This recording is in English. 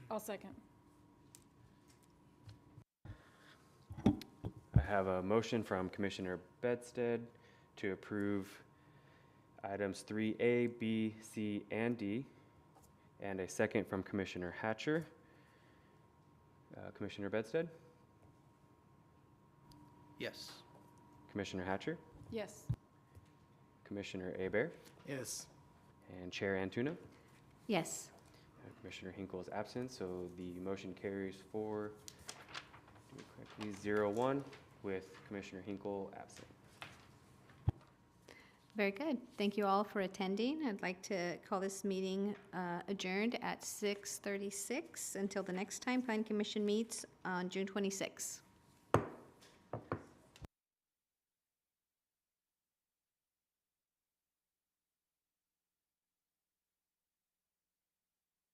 I'll second. I have a motion from Commissioner Bedstead to approve items 3A, B, C, and D, and a second from Commissioner Hatcher. Uh, Commissioner Bedstead? Yes. Commissioner Hatcher? Yes. Commissioner Abear? Yes. And Chair Antuna? Yes. Uh, Commissioner Hinkle is absent, so the motion carries for, do it correctly, zero one with Commissioner Hinkle absent. Very good. Thank you all for attending. I'd like to call this meeting uh, adjourned at 6:36 until the next time Plan Commission meets on June 26.